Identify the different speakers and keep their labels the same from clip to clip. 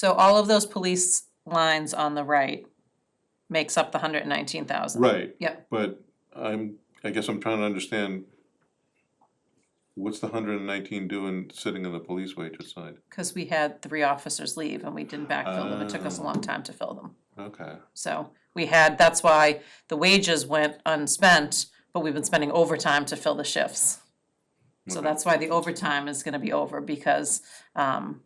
Speaker 1: So all of those police lines on the right makes up the hundred and nineteen thousand.
Speaker 2: Right.
Speaker 1: Yep.
Speaker 2: But I'm, I guess I'm trying to understand, what's the hundred and nineteen doing sitting on the police wages side?
Speaker 1: Cause we had three officers leave and we didn't backfill them, it took us a
Speaker 2: Oh.
Speaker 1: long time to fill them.
Speaker 2: Okay,
Speaker 1: So we had, that's why the wages went unspent, but we've been spending overtime to fill the shifts. So
Speaker 2: Okay.
Speaker 1: that's why the overtime is gonna be over because um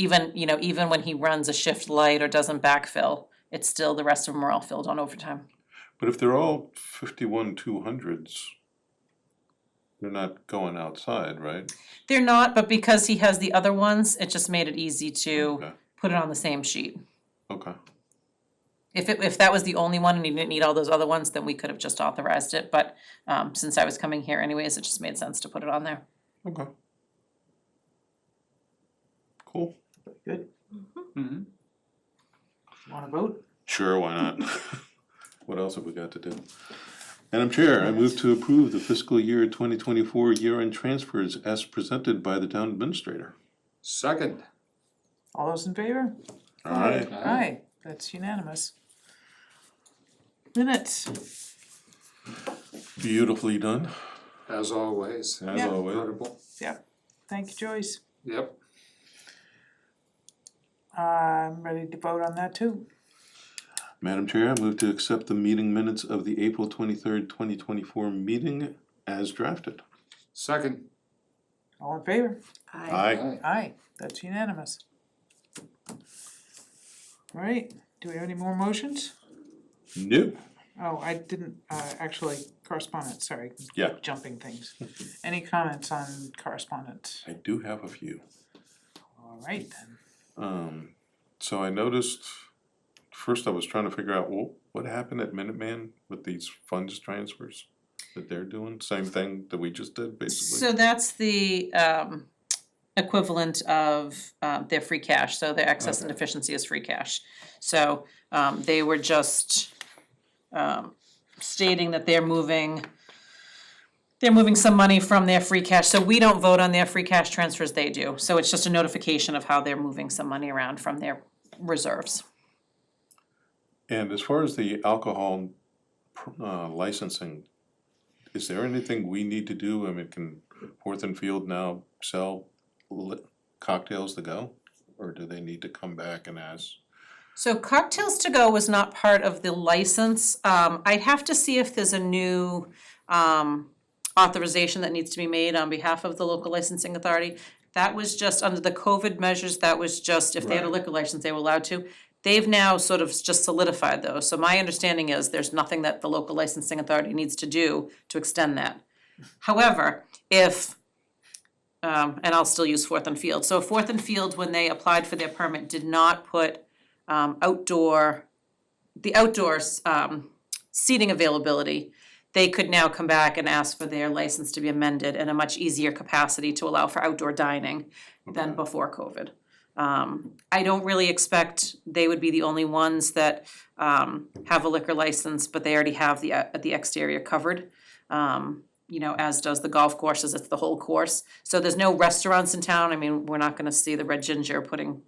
Speaker 1: even, you know, even when he runs a shift light or doesn't backfill, it's still, the rest of them are all filled on overtime.
Speaker 2: but if they're all fifty-one, two hundreds, they're not going outside, right?
Speaker 1: They're not, but because he has the other ones, it just made it easy to
Speaker 2: Okay,
Speaker 1: put it on the same sheet.
Speaker 2: Okay,
Speaker 1: If it, if that was the only one and he didn't need all those other ones, then we could have just authorized it, but um since I was coming here anyways, it just made sense to put it on there.
Speaker 2: okay. Cool.
Speaker 3: Good,
Speaker 4: Mhm.
Speaker 2: Mm-hmm.
Speaker 3: wanna vote?
Speaker 2: Sure, why not? What else have we got to do? Madam Chair, I move to approve the fiscal year twenty twenty-four year-end transfers as presented by the town administrator.
Speaker 4: Second.
Speaker 3: All those in favor?
Speaker 2: Aye.
Speaker 3: Aye, that's unanimous. Minutes,
Speaker 2: Beautifully done,
Speaker 4: As always.
Speaker 2: as
Speaker 3: Yeah.
Speaker 2: always.
Speaker 4: Incredible.
Speaker 3: thank you Joyce,
Speaker 4: Yep.
Speaker 3: I'm ready to vote on that too.
Speaker 2: Madam Chair, I move to accept the meeting minutes of the April twenty-third, twenty twenty-four meeting as drafted.
Speaker 4: Second.
Speaker 3: All in favor?
Speaker 2: Aye.
Speaker 3: Aye, that's unanimous. All right, do we have any more motions?
Speaker 2: New.
Speaker 3: Oh, I didn't, uh, actually, correspondence, sorry.
Speaker 2: Yeah.
Speaker 3: Jumping things. Any comments on correspondence?
Speaker 2: I do have a few.
Speaker 3: All right then,
Speaker 2: Um, so I noticed, first I was trying to figure out, well, what happened at Minuteman with these funds transfers that they're doing? Same thing that we just did, basically.
Speaker 1: So that's the um equivalent of um their free cash, so their excess and
Speaker 2: Okay.
Speaker 1: deficiency is free cash. So um they were just um stating that they're moving they're moving some money from their free cash, so we don't vote on their free cash transfers, they do. So it's just a notification of how they're moving some money around from their reserves.
Speaker 2: And as far as the alcohol uh, licensing, is there anything we need to do? I mean, can Fourth and Field now sell li- cocktails to go? Or do they need to come back and ask?
Speaker 1: So cocktails to go was not part of the license. Um, I'd have to see if there's a new um authorization that needs to be made on behalf of the local licensing authority. That was just under the COVID measures, that was just if they had a
Speaker 2: Right.
Speaker 1: liquor license, they were allowed to. They've now sort of just solidified those. So my understanding is there's nothing that the local licensing authority needs to do to extend that. However, if um and I'll still use Fourth and Field. So Fourth and Field, when they applied for their permit, did not put um outdoor the outdoors um seating availability, they could now come back and ask for their license to be amended in a much easier capacity to allow for outdoor dining than
Speaker 2: Okay.
Speaker 1: before COVID. Um I don't really expect they would be the only ones that um have a liquor license, but they already have the uh, the exterior covered. Um you know, as does the golf courses, it's the whole course. So there's no restaurants in town. I mean, we're not gonna see the Red Ginger putting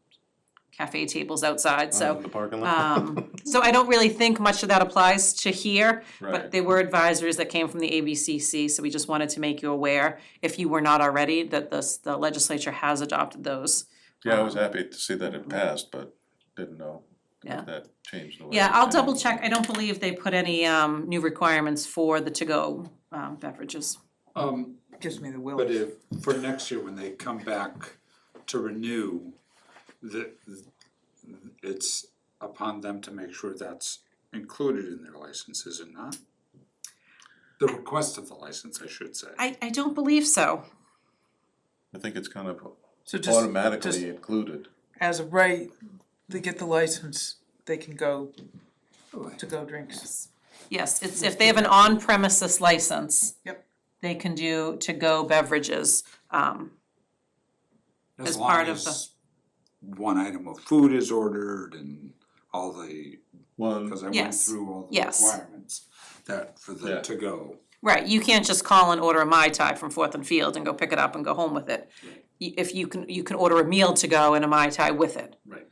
Speaker 1: cafe tables outside, so.
Speaker 2: Uh, in The parking lot?
Speaker 1: Um, so I don't really think much of that applies to here, but
Speaker 2: Right.
Speaker 1: they were advisories that came from the ABCC, so we just wanted to make you aware, if you were not already, that this, the legislature has adopted those.
Speaker 2: Yeah, I was happy to see that it passed, but didn't know
Speaker 1: Yeah.
Speaker 2: if that changed the way.
Speaker 1: Yeah,
Speaker 2: it
Speaker 1: I'll
Speaker 2: changed.
Speaker 1: double check, I don't believe they put any, um, new requirements for the to-go, um, beverages.
Speaker 4: Um,
Speaker 3: gives me the will.
Speaker 4: but if, for next year, when they come back to renew, the, it's upon them to make sure that's included in their license, is it not? The request of the license, I should say.
Speaker 1: I, I don't believe so,
Speaker 2: I think it's kind of
Speaker 3: So just, just
Speaker 2: automatically included.
Speaker 3: as of right, they get the license, they can go to go drinks.
Speaker 1: yes, it's, if they have an on-premises license.
Speaker 3: Yep.
Speaker 1: They can do to-go beverages, um, as
Speaker 4: As long
Speaker 1: part of
Speaker 4: as one item of food is ordered and all the,
Speaker 2: Well,
Speaker 4: because I went
Speaker 1: Yes.
Speaker 4: through all the
Speaker 1: Yes.
Speaker 4: requirements that for the
Speaker 2: Yeah.
Speaker 4: to go.
Speaker 1: Right, you can't just call and order a Mai Tai from Fourth and Field and go pick it up and go home with it. Y- If you can, you can order a meal to go and a Mai Tai with it.
Speaker 4: Right.